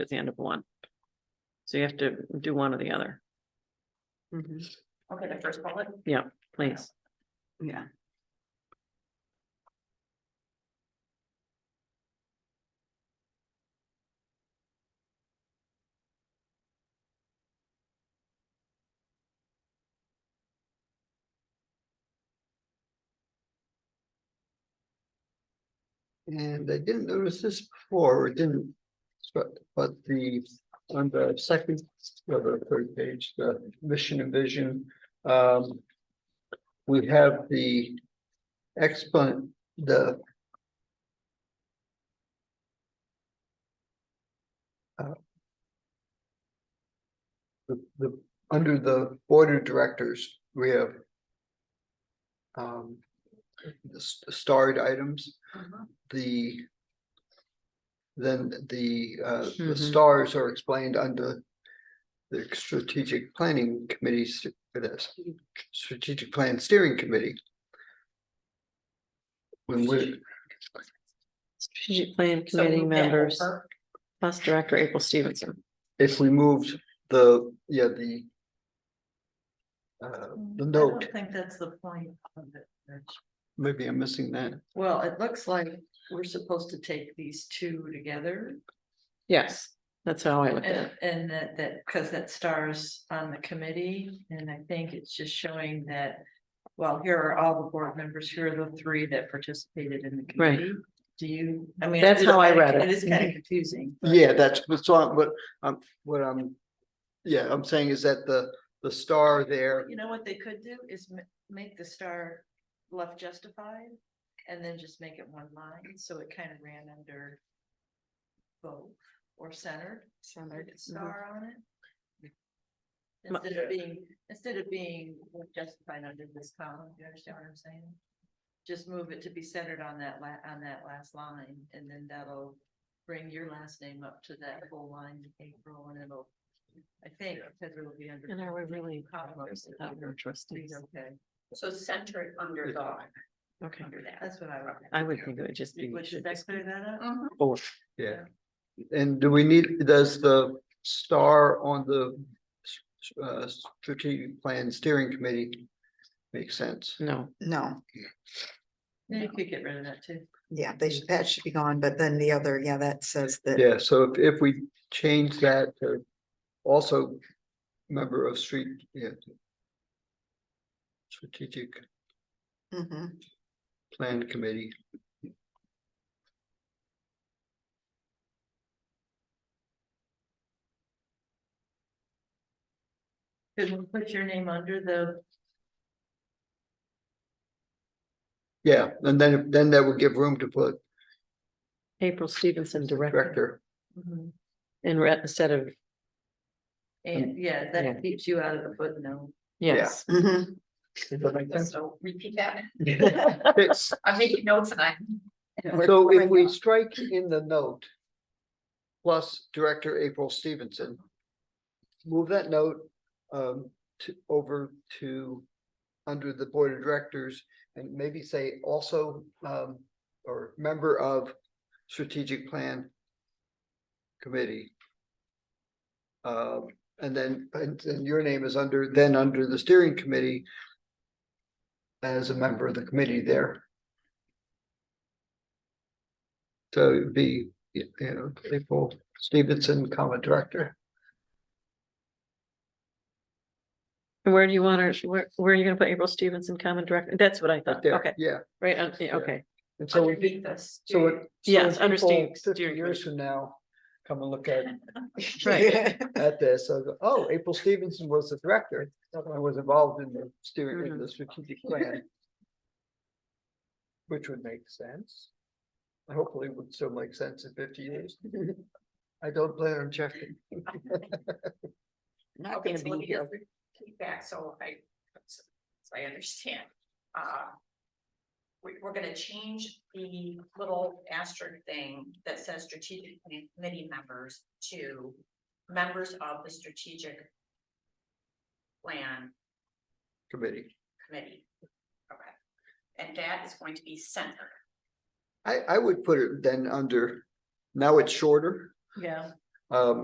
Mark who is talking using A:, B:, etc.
A: at the end of one. So you have to do one or the other,
B: Mm-hmm,
C: Okay, the first bullet.
A: please.
C: Yeah.
D: And I didn't notice this before, or didn't, but, but the, on the second, or the third page, the mission and vision, um. We have the exponent, the. uh, The, the, under the board of directors, we have. Um, the s- starred items
C: Mm-hmm.
D: the. Then the uh, the
C: Mm-hmm.
A: Mhm.
D: stars are explained under. The strategic planning committees, this strategic plan steering committee. When we,
A: Strategic Plan
C: So
A: Committee
C: move that
A: members,
C: over.
A: plus Director April Stevenson.
D: if we moved the, yeah, the. Uh, the
C: I don't
D: note,
C: Think that's the point. of it, Rich.
D: maybe I'm missing that.
C: Well, it looks like we're supposed to take these two together
A: Yes, that's how I look at
C: and,
A: it.
C: and that, that, because that stars on the committee. And I think it's just showing that, well, here are all the board members, here are the three that participated in the
A: Right.
C: committee. Do you, I mean.
A: That's
C: it is
A: how I
C: kinda-
A: read it. Mm-hmm.
C: It is kind of confusing. but-
D: Yeah, that's what's on, but um, what I'm. Yeah, I'm saying is that the the star there,
C: You know what they could do is ma- make the star left justified and then just make it one line, so it kind of ran under. Both or centered, centered
A: Mm-hmm.
C: star on it.
A: Ma-
C: Instead of being, instead of being left justified under this column, you understand what I'm saying? Just move it to be centered on that la- on that last line, and then that'll bring your last name up to that whole line, April, and it'll. I think, because it'll be under.
A: And are we really?
C: Compromise.
A: trustees?
C: Okay,
E: So centered under dog,
A: Okay,
E: under that. Mm-hmm.
C: that's what I would.
A: I would think it would just be.
C: Which is that clear that up?
A: Four.
D: Yeah, and do we need, does the star on the s- s- uh, strategic plan steering committee make sense?
A: No,
B: No,
C: Yeah, You could get rid of that too.
B: yeah, they should, that should be gone, but then the other, yeah, that says that,
D: Yeah, so if, if we change that to also member of street, yeah. Strategic
B: Mhm,
D: plan committee,
C: Could we put your name under the,
D: yeah, and then, then that would give room to put
A: April Stevenson Director
D: director.
A: Mm-hmm.
C: Mhm.
A: and re- instead of,
C: and yeah,
A: Yeah.
C: that keeps you out of the footnote.
A: yes.
B: mhm.
D: Does that make sense?
E: So repeat that.
D: It's-
E: I'm making notes and I.
D: So if we strike in the note. Plus Director April Stevenson. Move that note um to over to. Under the Board of Directors and maybe say also um or member of Strategic Plan. Committee. Um and then and and your name is under, then under the steering committee. As a member of the committee there. So it'd be, you know, April Stevenson, comma, director.
A: And Where do you want her, where, where are you gonna put April Stevenson, common director? That's what I thought.
D: There,
A: Okay,
D: Yeah,
A: right, uh, yeah, okay.
D: and so, we-
E: Underneath this.
D: so it. so
A: Yes,
D: when
A: understand
D: people Fifty
A: steering
D: years from now, come and look at,
A: Right.
D: at this, so, go, oh, April Stevenson was the director, I was involved in the steering, in
A: Mhm.
D: the strategic plan. Which would make sense. Hopefully it would still make sense in fifty years. I don't plan on checking.
B: Not
E: Okay,
B: gonna
E: so let
B: be
E: me
B: here.
E: just repeat back, so I, so I understand. Uh, We, we're gonna change the little asterisk thing that says strategic plan committee members to members of the strategic plan
D: Committee.
E: committee. Okay, and that is going to be centered.
D: I, I would put it then under, now it's shorter.
C: Yeah.
D: Um,